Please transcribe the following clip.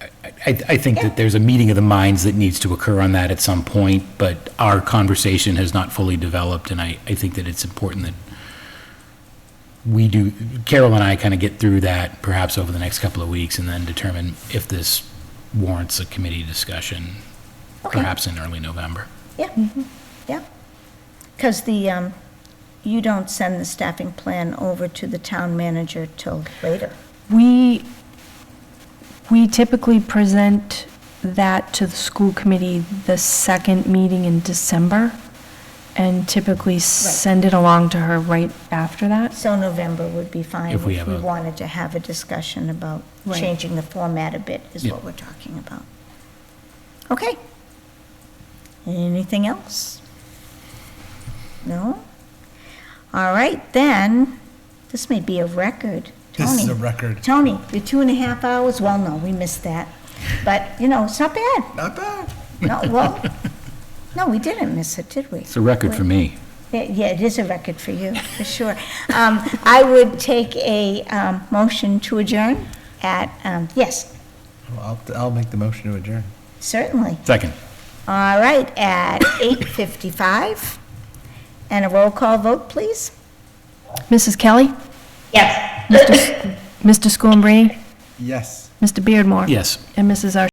I, I think that there's a meeting of the minds that needs to occur on that at some point, but our conversation has not fully developed, and I, I think that it's important that we do, Carol and I kind of get through that perhaps over the next couple of weeks and then determine if this warrants a committee discussion, perhaps in early November. Yeah, yeah. Because the, um, you don't send the staffing plan over to the town manager till later. We, we typically present that to the school committee the second meeting in December, and typically send it along to her right after that. So November would be fine If if we we have a- wanted to have a discussion about Right. changing the format a bit, is Yeah. what we're talking about. Okay. Anything else? No? All right, then, this may be a record. This is Tony. a record. Tony, your two and a half hours, well, no, we missed that. But, you know, it's not bad. Not bad. No, well, no, we didn't miss it, did we? It's a record for me. Yeah, yeah, it is a record for you, for sure. Um, I would take a um, motion to adjourn at, um, yes, Well, I'll, I'll make the motion to adjourn. certainly. Second. All right, at 8:55. And a roll call vote, please. Mrs. Kelly? Yes. Mr. Schoenbrini? Yes. Mr. Beardmore? Yes. And Mrs. Ar-